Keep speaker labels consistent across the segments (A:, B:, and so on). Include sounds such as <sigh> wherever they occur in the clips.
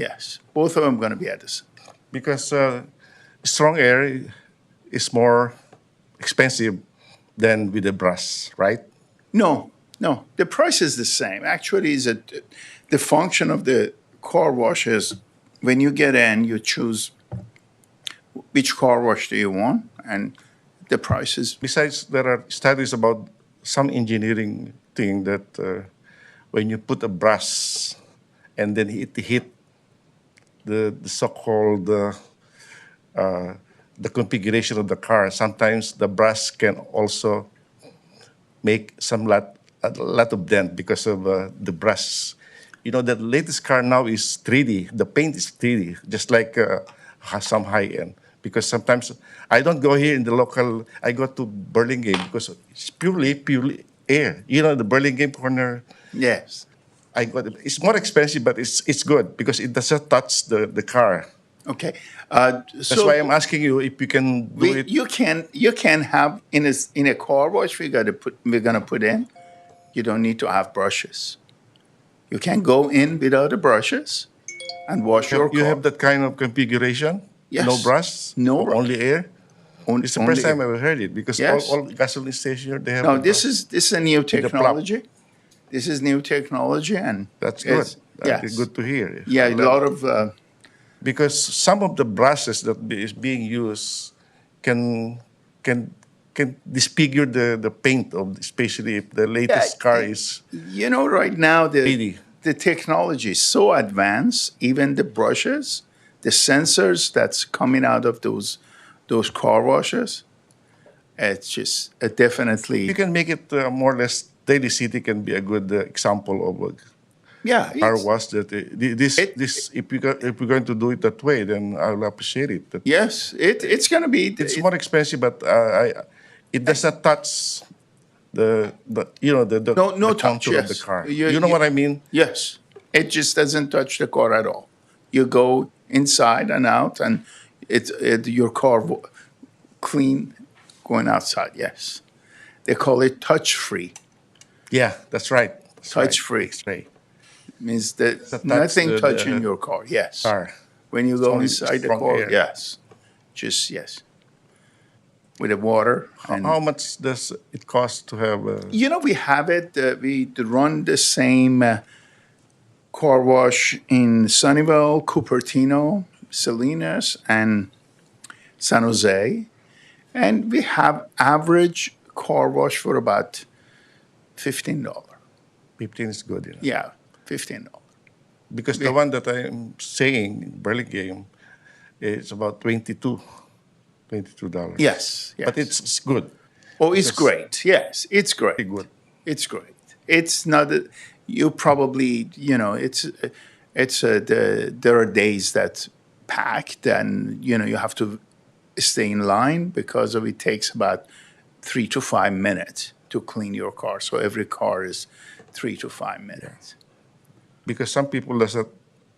A: Yes, both of them going to be at this.
B: because uh, strong air is more expensive than with the brass, right?
A: No, no, the price is the same. Actually, is it the function of the car wash is when you get in, you choose which car wash do you want, and the price is
B: Besides, there are studies about some engineering thing that uh, when you put a brass and then it hit the, the so-called uh, uh, the configuration of the car, sometimes the brass can also make some lot a lot of dent because of uh, the brass. You know, the latest car now is 3D. The paint is 3D, just like uh, ha- some high end. Because sometimes I don't go here in the local. I go to Burlingame because it's purely purely air. You know, the Burlingame corner.
A: yes.
B: I got it. It's more expensive, but it's it's good because it doesn't touch the, the car.
A: Okay, uh, so
B: That's why I'm asking you if you can do
A: we,
B: it.
A: you can you can have in a s- in a car wash we got to put we're gonna put in. You don't need to have brushes. You can go in without the brushes and wash your
B: you
A: car.
B: have that kind of configuration? No
A: Yes.
B: brass?
A: No brass.
B: Only air?
A: On-
B: It's the
A: only
B: first
A: if-
B: time I've heard it because
A: Yes.
B: all, all gasoline stations they have.
A: No,
B: a
A: this
B: brass.
A: is this is a new
B: plug.
A: technology. This is new technology, and
B: that's good.
A: it's-
B: That'd be
A: yes.
B: good to hear.
A: Yeah, a lot of uh,
B: because some of the brushes that be- is being used can can can disfigure the, the paint of especially if the latest car is
A: you know right now the
B: Really?
A: the technology is so advanced. Even the brushes, the sensors that's coming out of those those car washes, it's just uh,
B: you
A: definitely
B: can make it uh, more or less daily city can be a good uh, example of a
A: yeah.
B: car
A: it's-
B: wash that uh, thi- this
A: It-
B: this if you go, if we're going to do it that way then I'll appreciate it that
A: Yes, it it's gonna be.
B: it's
A: it-
B: more expensive, but uh, I, it does not touch the, the you know the, the,
A: No- no
B: the
A: touch,
B: contour of the
A: yes.
B: car.
A: You-
B: You, know
A: you-
B: what I mean?
A: Yes. It just doesn't touch the car at all. You go inside and out, and it, it your car w- clean going outside. Yes, they call it touch free.
B: Yeah, that's right. That's right.
A: Touch free
B: That's right.
A: means that
B: touch
A: nothing
B: the-
A: touching
B: the-
A: your car. Yes.
B: Car.
A: When you go
B: only
A: inside the
B: from
A: car,
B: air.
A: yes, just yes, with the water. And,
B: How much does it cost to have? Uh,
A: you know, we have it. Uh, we run the same uh, car wash in Sunnyvale, Cupertino, Salinas, and San Jose, and we have average car wash for about fifteen dollar.
B: Fifteen is good, you know?
A: Yeah, fifteen dollar.
B: because the one that I'm saying in Burlingame is about 22 dollars.
A: Yes, yes.
B: but it's, it's good,
A: oh, it's great. Yes, it's great.
B: pretty good.
A: It's great. It's not. A, you probably you know it's it's a, the there are days that packed and you know you have to stay in line because of it takes about three to five minutes to clean your car. So every car is three to five minutes.
B: because some people doesn't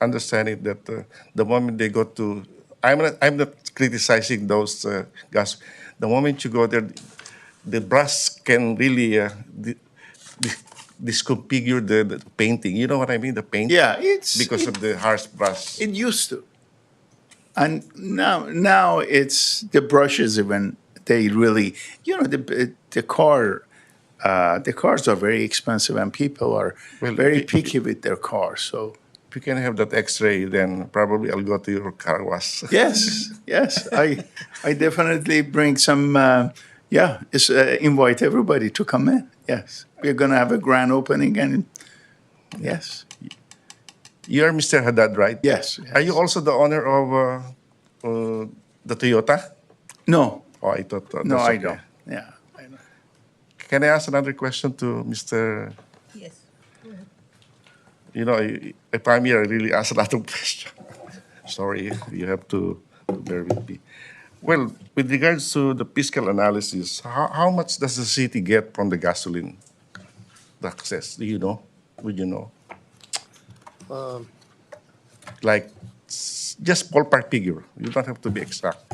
B: understand it that uh, the moment they go to I'm not I'm not criticizing those uh, guys. The moment you go there, the brass can really uh, di- di- disconfigure the, the painting. You know what I mean? The paint
A: Yeah, it's
B: because
A: it,
B: of the harsh brass.
A: it used to, and now now it's the brushes even they really you know the the car. Uh, the cars are very expensive, and people are
B: Well,
A: very
B: it-
A: picky with their cars. So
B: if you can have that X-ray, then probably I'll go to your car wash. <laughs>
A: yes, yes, I I definitely bring some. Uh, yeah, it's, uh, invite everybody to come in. Yes, we're gonna have a grand opening, and yes,
B: You're Mr. Haddad, right?
A: yes.
B: Are you also the owner of uh, uh, the Toyota?
A: No,
B: Oh, I thought. uh,
A: no,
B: that's
A: I
B: okay.
A: don't. Yeah, I don't.
B: Can I ask another question to Mr.
C: Yes.
B: You know, I- if I'm here, I really ask a lot of <laughs> questions. Sorry, you have to bear with me. Well, with regards to the fiscal analysis, how, how much does the city get from the gasoline taxes? Do you know? Would you know? Like, s- just ballpark figure. You don't have to be exact.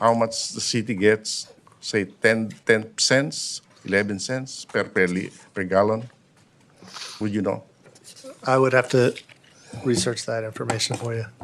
B: How much the city gets, say 10, 10 cents, 11 cents per, per, li- per gallon? Would you know?
D: I would have to
C: research that information for you.